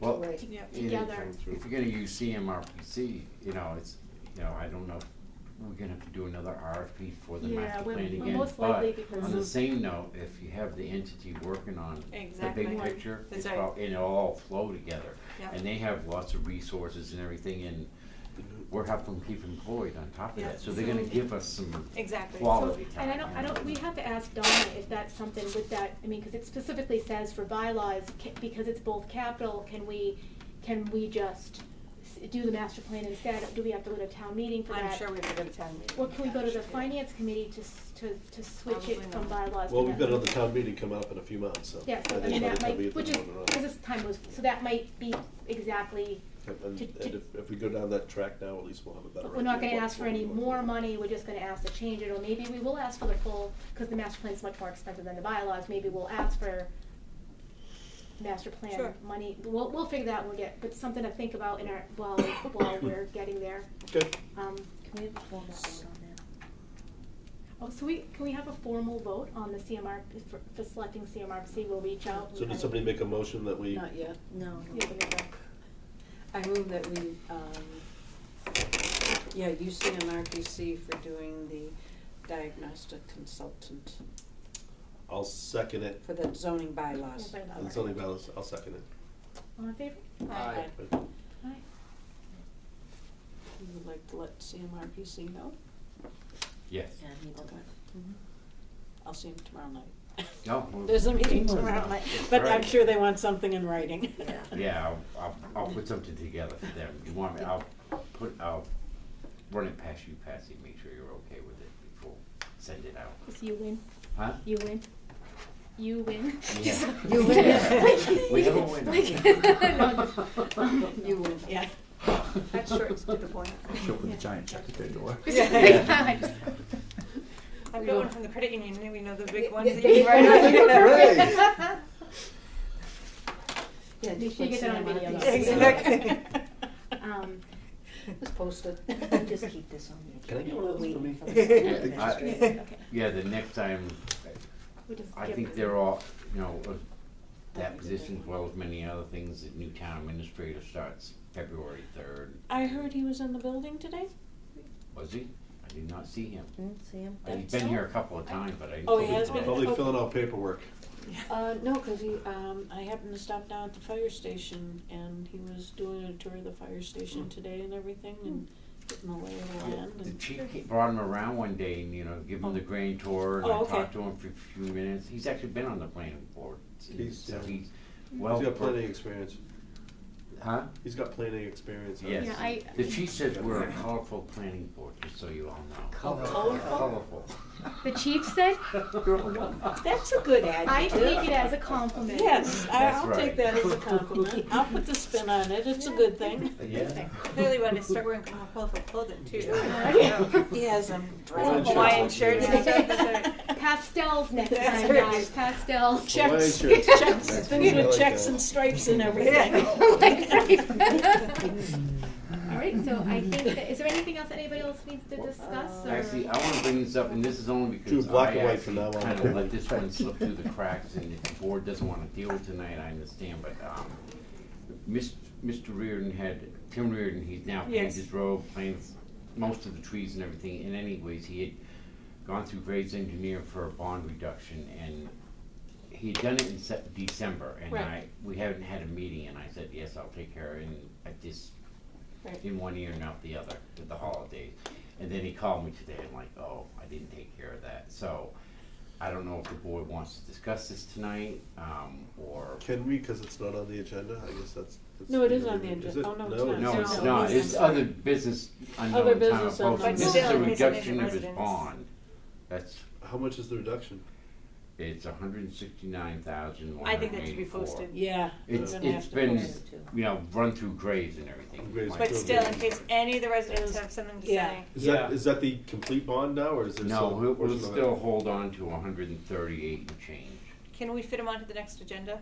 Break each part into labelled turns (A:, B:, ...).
A: Well,
B: Right.
C: to-
B: Yep.
A: And if-
C: together.
A: If you're gonna use CMRPC, you know, it's, you know, I don't know, if we're gonna have to do another RFP for the
C: Yeah,
A: master
C: we're-
A: plan
C: we're
A: again,
C: most likely
A: but
C: because
A: on the
C: of-
A: same note, if you have the entity working on the
B: Exactly.
A: big
B: Right.
A: picture, it's
B: That's right.
A: all, it'll all flow together.
B: Yep.
A: And they have lots of resources and everything, and we're helping keep employed on top of
B: Yeah.
A: that, so they're gonna
C: So-
A: give us some
B: Exactly.
C: So-
A: quality
C: And
A: time.
C: I don't, I
A: you know?
C: don't, we have to ask Donna if that's something with that, I mean, because it specifically says for bylaws, ca- because it's both capital, can we, can we just s- do the master plan instead? Do we have to go to town meeting for that?
B: I'm sure we have a good time.
C: Or can we go to the finance committee to, s- to, to switch it
B: Probably
C: from
B: not.
C: bylaws? to
D: Well, we've
C: that?
D: got another town meeting coming up in a few months, so.
C: Yeah, so I
D: think
C: mean,
D: that'll
C: that
D: be
C: might,
D: at the
C: which is,
D: moment around.
C: because this time was, so that might be exactly,
D: And, and
C: to- to-
D: if, if we go down that track now, at least we'll have a better idea.
C: we're not gonna
D: what-
C: ask for
D: what
C: any
D: we want.
C: more money, we're just gonna ask to change it, or maybe we will ask for the full, because the master plan's much more expensive than the bylaws, maybe we'll ask for master plan
B: Sure.
C: money, we'll, we'll figure that, we'll get, but something to think about in our, while, while we're getting there.
D: Good.
C: Um,
E: Can we have a formal vote on that?
C: oh, so we, can we have a formal vote on the CMR, for, for selecting CMRPC, we'll reach out.
D: So did somebody make a motion that we,
E: Not yet, no.
C: Yeah, we have a-
F: I move that we, um, yeah, UCMRPC for doing the diagnostic consultant
D: I'll second it,
F: for the zoning bylaws.
C: Everybody
D: and
C: love
D: Sonny
C: her.
D: Vallis, I'll second it.
C: All in favor?
B: Aye.
D: Right.
C: Aye.
F: You would like to let CMRPC know?
A: Yes,
E: Yeah, I need to-
F: Okay.
C: Mm-hmm.
F: I'll see him tomorrow night.
A: no. we're-
F: There's a meeting tomorrow night, but I'm
A: Alright.
F: sure they want something in writing.
E: Yeah.
A: Yeah, I'll, I'll, I'll put something together for them. You want me, I'll put, I'll run it past you, Patsy, make sure you're okay with it before, send it out,
C: So you win,
A: huh?
C: you win, you win.
A: Yeah.
F: You
A: Yeah.
F: win.
A: We have a winner.
F: You win, yeah.
B: That's short and to the point.
G: Show up with a giant check at their door.
C: I just-
B: I've got one from the credit union, and we know the big
F: Yeah,
B: ones
F: yeah,
B: that you
F: yeah.
B: write on.
F: Yeah,
C: Make
F: just
C: sure you
F: let
C: get that on video.
F: CMRPC.
B: Exactly.
C: Um,
F: Just post it.
E: I'll Just keep this on your.
D: Can I get one of those for me?
A: Yeah, I-
C: okay,
A: Yeah, the next time,
C: we just
A: I
C: give-
A: think they're all, you know, uh, that position as well as many other things, the new town administrator starts February third.
F: I heard he was in the building today?
A: Was he? I did not see him.
E: See him?
A: Uh, He's
F: That's
A: been
F: all.
A: here a couple of times, but I didn't.
F: Oh, he
A: see him
F: has
A: today.
F: been?
D: Probably filling out paperwork.
F: Uh, no, cause he, um, I happened to stop down at the fire station and he was doing a tour of the fire station today and everything and
B: Hmm.
F: getting the lay of the
A: Hmm. Yeah,
F: land
A: The
F: and.
A: chief ca- brought him around one day and, you know, give him the grand tour and
F: Oh,
A: I
F: okay.
A: talked to him for a few minutes. He's actually been on the planning board. since-
D: He's-
A: so
D: yeah.
A: he's well.
D: He's got planning experience.
A: Huh?
D: He's got planning experience. huh?
A: Yes.
C: Yeah, I-
A: The chief says we're a colorful planning board, just so you all know.
G: Colorful.
A: Colorful.
C: The chief said,
F: That's a good
C: I
F: adjective.
C: take it as a compliment.
F: Yes, I,
A: That's
F: I'll
A: right.
F: take that as a compliment. I'll put the spin on it. It's a good thing.
A: Yeah.
B: Clearly, we want to start wearing more colorful clothing too.
C: Yeah.
F: He has them.
D: Hawaiian
B: Hawaiian
D: shirts.
B: shirts.
C: Yeah.
B: That's right.
C: Pastels next
B: That's
C: time,
B: right.
C: guys, pastels.
D: Hawaiian
F: Checks,
D: shirts.
F: checks,
D: That's
F: things
D: really
F: with
D: like uh,
F: checks
D: that.
F: and stripes and everything.
C: Like, right. All right, so I think, that- is there anything else anybody else needs to discuss or?
A: Actually, I wanna bring this up, and this is only
D: Do
A: because
D: black
A: I
D: and white from
A: actually
D: now on.
A: kinda let this one slip through the cracks, and if the board doesn't wanna deal with tonight, I understand, but, um, Mis- Mr. Reardon had, Tim Reardon, he's now paved
B: Yes.
A: his road, planted most of the trees and everything, and anyways, he had gone through Graves Engineer for a bond reduction, and he had done it in Sep- December, and
F: Right.
A: I, we haven't had a meeting, and I said, yes, I'll take care, of it," and I just
F: Right.
A: in one ear and out the other with the holidays. And then he called me today and like, oh, I didn't take care of that. So I don't know if the board wants to discuss this tonight, um, or,
D: Can we, because it's not on the agenda, I guess that's. that's-
F: No, it is on the
D: Is
F: agenda.
D: it?
F: Oh, no, it's not.
A: no, it's
F: No,
A: not,
F: it's-
A: it's other business unknown
F: Other
A: town of
F: business unknown.
A: Poston.
B: But
A: This is
B: still,
A: a
B: in case it
A: reduction
B: isn't
A: of his
B: residents.
A: bond. That's,
D: How much is the reduction?
A: it's a hundred and sixty-nine thousand one
B: I
A: hundred
B: think
A: and eighty-four.
B: that should be posted.
F: Yeah. we're
A: It's,
F: gonna
A: it's
F: have to
A: been,
F: post it.
A: you know, run through graves and everything.
D: Graves.
A: Like-
B: But still, in case any of the residents have something to
F: Yeah.
B: say.
D: Is
G: Yeah.
D: that, is that the complete bond now, or is there
A: No,
D: still? a
A: we'll, we'll
D: portion of it?
A: still hold on to hundred and thirty-eight and change.
B: Can we fit them onto the next agenda?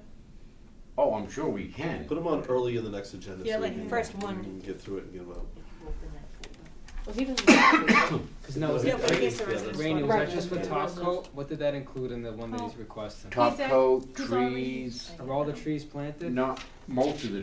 A: Oh, I'm sure we can.
D: Put them on early in the next agenda.
B: Yeah,
D: so we
B: like
D: can-
B: first
D: we
B: one.
D: can Get through it and get them out.
E: Open that folder.
F: Well, he doesn't. have to.
G: Cause no,
B: Yeah, but in
G: Rainey,
B: case the residents.
G: Rainey, was
B: want-
G: that just for
F: Right.
G: top coat? What did that include in the one that he's
C: Oh.
G: requesting?
A: Top
C: He's a-
A: coat,
C: he's already-
A: trees,
G: Are all the trees planted?
A: not most of the